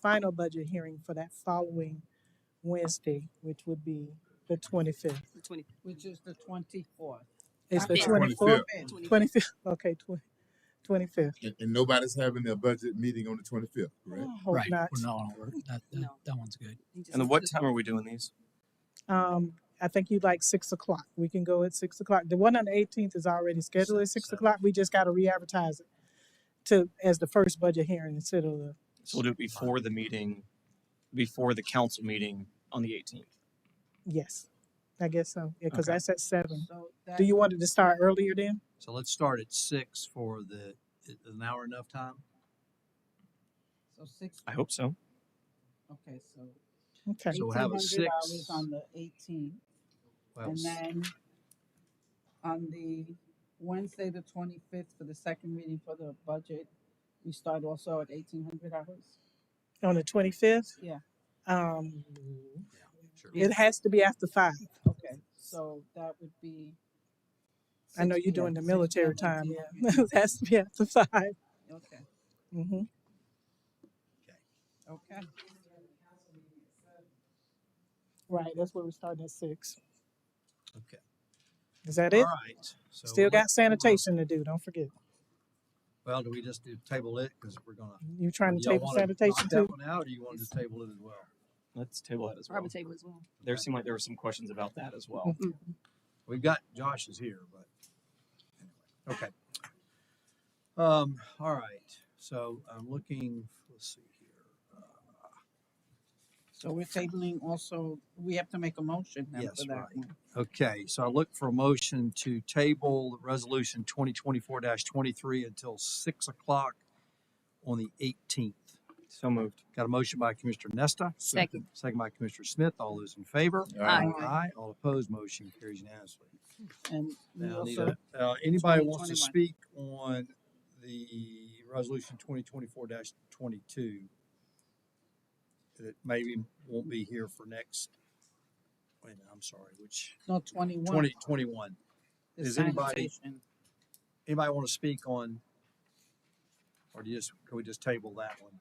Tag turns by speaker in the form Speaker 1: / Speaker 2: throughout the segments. Speaker 1: final budget hearing for that following Wednesday, which would be the twenty-fifth.
Speaker 2: the twenty,
Speaker 3: which is the twenty-fourth.
Speaker 1: It's the
Speaker 2: Okay.
Speaker 1: twenty-fourth,
Speaker 2: twenty.
Speaker 1: twenty-fifth, okay, twenty, twenty-fifth.
Speaker 4: And, and nobody's having their budget meeting on the twenty-fifth,
Speaker 1: I
Speaker 4: correct?
Speaker 1: hope
Speaker 5: Right.
Speaker 1: not.
Speaker 5: Well, no, no, we're- that, that,
Speaker 2: No.
Speaker 5: that one's good.
Speaker 2: he just-
Speaker 6: And what time are we doing these?
Speaker 1: Um, I think you'd like six o'clock. We can go at six o'clock. The one on the eighteenth is already scheduled at six
Speaker 6: Seven.
Speaker 1: o'clock. We just gotta re-advertise it to, as the first budget hearing instead of the,
Speaker 6: So we'll do it before the meeting, before the council meeting on the eighteenth.
Speaker 1: yes, I guess so. Yeah, cause
Speaker 6: Okay.
Speaker 1: that's at seven.
Speaker 3: So
Speaker 1: Do you
Speaker 3: that-
Speaker 1: want it to start earlier then?
Speaker 7: So let's start at six for the, is an hour enough time?
Speaker 3: So six,
Speaker 6: I hope so.
Speaker 3: okay, so
Speaker 1: Okay,
Speaker 7: So
Speaker 3: eighteen
Speaker 7: we'll have a
Speaker 3: hundred dollars
Speaker 7: six.
Speaker 3: on the eighteenth,
Speaker 7: Well,
Speaker 3: and
Speaker 7: s-
Speaker 3: then on the Wednesday, the twenty-fifth, for the second meeting for the budget, we start also at eighteen hundred hours?
Speaker 1: on the twenty-fifth?
Speaker 3: Yeah.
Speaker 1: Um,
Speaker 7: sure.
Speaker 1: it has to be after five.
Speaker 3: Okay, so that would be.
Speaker 1: I know
Speaker 3: 6
Speaker 1: you're doing the
Speaker 3: p.m., 6
Speaker 1: military
Speaker 3: p.m.
Speaker 1: time,
Speaker 3: 1800.
Speaker 1: yeah. It has to be after five.
Speaker 3: Okay,
Speaker 1: Mm-hmm.
Speaker 3: okay.
Speaker 1: Right, that's where we starting at six.
Speaker 7: Okay.
Speaker 1: Is that
Speaker 7: All
Speaker 1: it?
Speaker 7: right. So
Speaker 1: Still
Speaker 7: let-
Speaker 1: got sanitation to do, don't forget.
Speaker 7: Well, do we just do table it? Cause we're gonna.
Speaker 1: You trying to
Speaker 7: y'all
Speaker 1: table
Speaker 7: wanna
Speaker 1: sanitation
Speaker 7: knock
Speaker 1: too?
Speaker 7: That one out, or you want to table it as well?
Speaker 6: Let's table that as well.
Speaker 2: Robert table as well.
Speaker 6: There seemed like there were some questions about that as well.
Speaker 7: We've got Josh is here, but anyway, okay. Um, all right, so I'm looking, let's see here. Uh,
Speaker 3: So we're tabling also, we have to make a motion now
Speaker 7: Yes,
Speaker 3: for that
Speaker 7: right.
Speaker 3: one.
Speaker 7: Okay, so I look for a motion to table resolution twenty twenty-four twenty-three until six o'clock on the eighteenth.
Speaker 6: So moved.
Speaker 7: Got a motion by Commissioner Nesta.
Speaker 2: Second.
Speaker 7: Second by Commissioner Smith. All those in favor?
Speaker 2: Aye.
Speaker 7: Aye. All opposed, motion carries unanimously.
Speaker 3: And we
Speaker 7: Now, I need
Speaker 3: also,
Speaker 7: a- uh, anybody wants
Speaker 3: 2021.
Speaker 7: to speak on the resolution twenty twenty-four twenty-two? That maybe won't be here for next, wait, a minute, I'm sorry, which,
Speaker 3: no, twenty-one.
Speaker 7: twenty twenty-one.
Speaker 3: the
Speaker 7: is anybody-
Speaker 3: sanitation.
Speaker 7: Anybody want to speak on, or do you just, can we just table that one?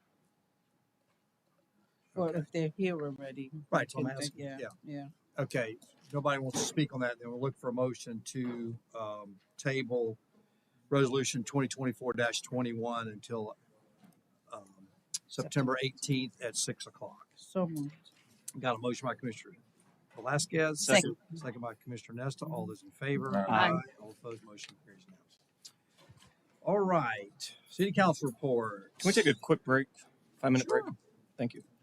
Speaker 3: Well,
Speaker 7: Okay.
Speaker 3: if they're here already. we
Speaker 7: Right, so I'm
Speaker 3: can think-
Speaker 7: asking, yeah.
Speaker 3: Yeah.
Speaker 7: Okay, nobody wants to speak on that, then we'll look for a motion to, um, table resolution twenty twenty-four twenty-one until, um, September eighteenth at six o'clock.
Speaker 3: So moved.
Speaker 7: Got a motion by Commissioner Velasquez.
Speaker 2: Second.
Speaker 7: Second by Commissioner Nesta. All those in favor?
Speaker 2: Aye.
Speaker 7: All opposed, motion carries now. All right, city council report.
Speaker 6: Can we take a quick break? Five minute break? Thank you.